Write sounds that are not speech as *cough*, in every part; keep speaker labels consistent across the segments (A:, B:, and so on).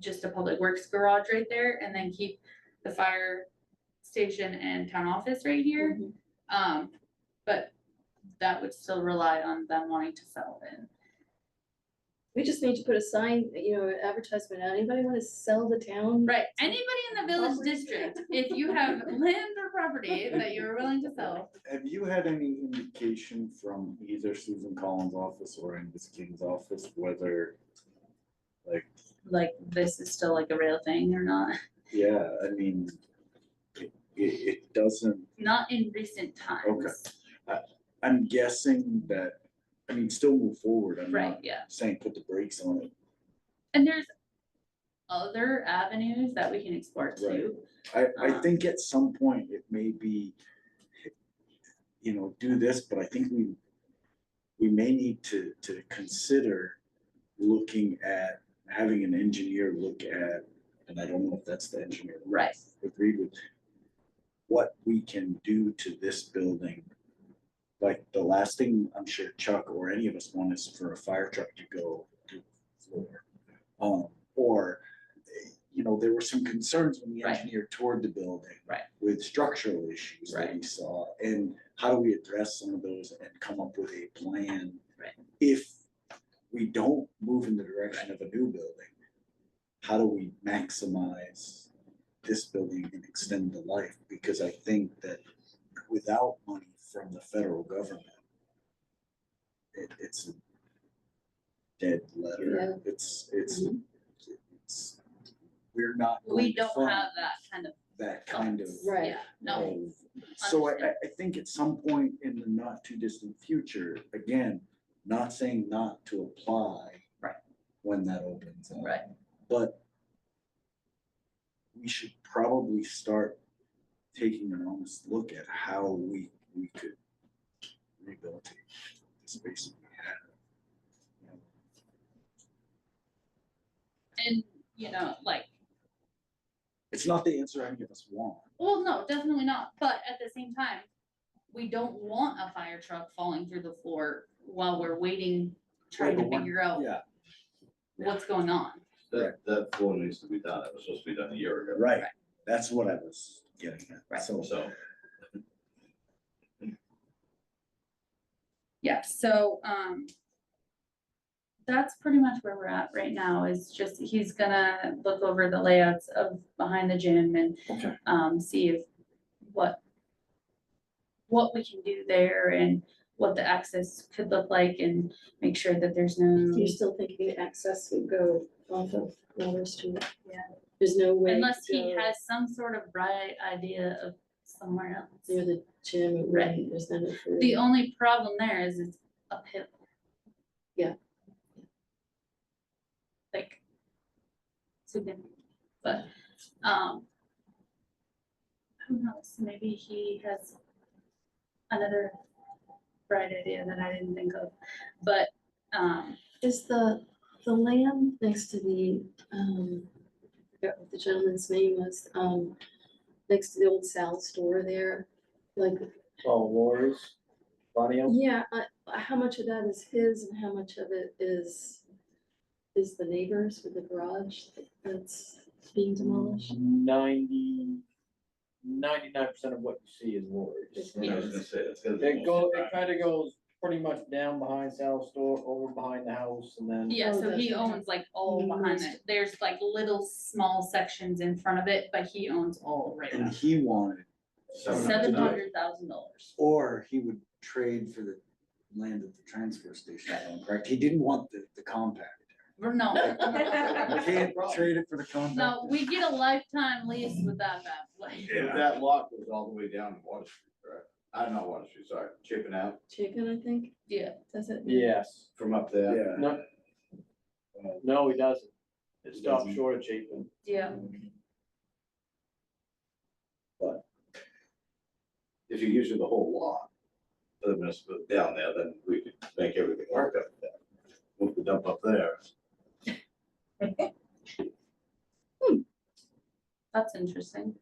A: just a public works garage right there and then keep the fire station and town office right here. Um, but that would still rely on them wanting to sell in.
B: We just need to put a sign, you know, advertisement out, anybody wanna sell the town?
A: Right, anybody in the village
B: Property.
A: district, if you
B: *laughs*
A: have land or property that you're willing to sell,
C: Have you had any indication from either Susan Collins' office or Angus King's office whether, like,
A: like this is still like a real thing or not?
C: yeah, I mean, it, it, it doesn't,
A: Not in recent times.
C: I'm guessing that, I mean, still move forward, I'm
A: Right,
C: not
A: yeah.
C: saying put the brakes on it.
A: And there's other avenues that we can explore too.
C: I, I
A: Uh-huh.
C: think at some point it may be, you know, do this, but I think we, we may need to, to consider looking at, having an engineer look at, and I don't know if that's the engineer. that
A: Right.
C: Agreed with, what we can do to this building. Like, the last thing I'm sure Chuck or any of us want is for a fire truck to go to the floor. Um, or you know, there were some concerns when the
A: Right.
C: engineer toured the building.
A: Right.
C: With structural issues that we saw, and how do we address some of those and come up with a plan?
A: Right.
C: If we don't move in the direction of a new building, how do we maximize this building and extend the life? Because I think that without money from the federal government, it, it's a dead letter. It's, it's, it's, we're not.
A: Mm-hmm. We
C: going to
A: don't
C: fund
A: have that kind of,
C: That kind of.
B: Right.
A: yeah, no,
C: of- So I, I, I think at some point in the not too distant future, again, not saying not to apply.
A: Right.
C: When that opens up.
A: Right.
C: But we should probably start taking an honest look at how we, we could rehabilitate the space we have.
A: and, you know, like,
C: It's not the answer any of us want.
A: well, no, definitely not, but at the same time, we don't want a fire truck falling through the floor while we're waiting, trying
C: Right,
A: to
C: but we're-
A: figure out
C: Yeah,
A: what's going on.
D: That, that floor needs to be done, it was supposed to be done a year ago,
C: right. That's what I was getting
A: Right.
C: at. So
D: so.
A: Yeah, so, um. That's pretty much where we're at right now, is just, he's gonna look over the layouts of behind the gym and.
C: Okay.
A: Um, see if, what. What we can do there and what the access could look like and make sure that there's no,
B: You're still thinking access would go off of Water Street?
A: Yeah.
B: There's no way. to
A: unless he
B: go
A: has some sort of bright idea of somewhere
B: Near
A: else.
B: the gym, it wouldn't-
A: Right.
B: there's none for.
A: The only problem there is it's uphill.
B: Yeah.
A: Like. Significant, but, um. Who knows, maybe he has another bright idea that I didn't think of, but, um,
B: Is the, the land next to the, um, I forgot what the gentleman's name was, um, next to the old Sal store there, like,
E: Oh, Lori's, Bonnie, oh,
B: yeah, uh, how much of that is his and how much of it is, is the neighbors with the garage that's being demolished?
E: ninety, ninety-nine percent of what you see is Lori's.
B: Is
D: I was gonna say, that's gonna be.
E: It go, it kinda goes pretty much down behind Sal's store, over behind the house, and then.
A: yeah,
B: Oh,
A: so he
B: that's-
A: owns like all behind
B: Mm.
A: it, there's like little small sections in front of it, but he owns all right
C: And
A: now.
C: he wanted,
A: Seven hundred thousand dollars.
C: or he would trade for the land at the transfer station, if I'm correct? He didn't want the, the compact.
A: Or no,
C: You
A: no.
C: Can't trade it for the compact.
A: No, we get a lifetime lease with that bad boy.
D: If that lot goes all the way down to Water Street, correct? I don't know Water Street, sorry, chipping out
B: Chicken, I think,
A: Yeah,
B: does it?
E: Yes,
D: from up there.
C: Yeah,
E: no,
D: uh,
E: no, he doesn't. It stops
D: Doesn't.
E: short of Chapin.
A: yeah,
D: If you gives you the whole lot, other than it's put down there, then we could make everything work up there. Move the dump up there.
A: that's interesting.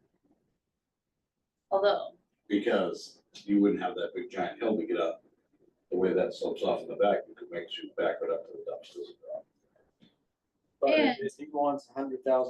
A: Although,
D: because you wouldn't have that big giant hill to get up. The way that slopes off in the back, you could make sure you back it up to the dumpsters.
E: But
A: And-
E: if he wants a hundred thousand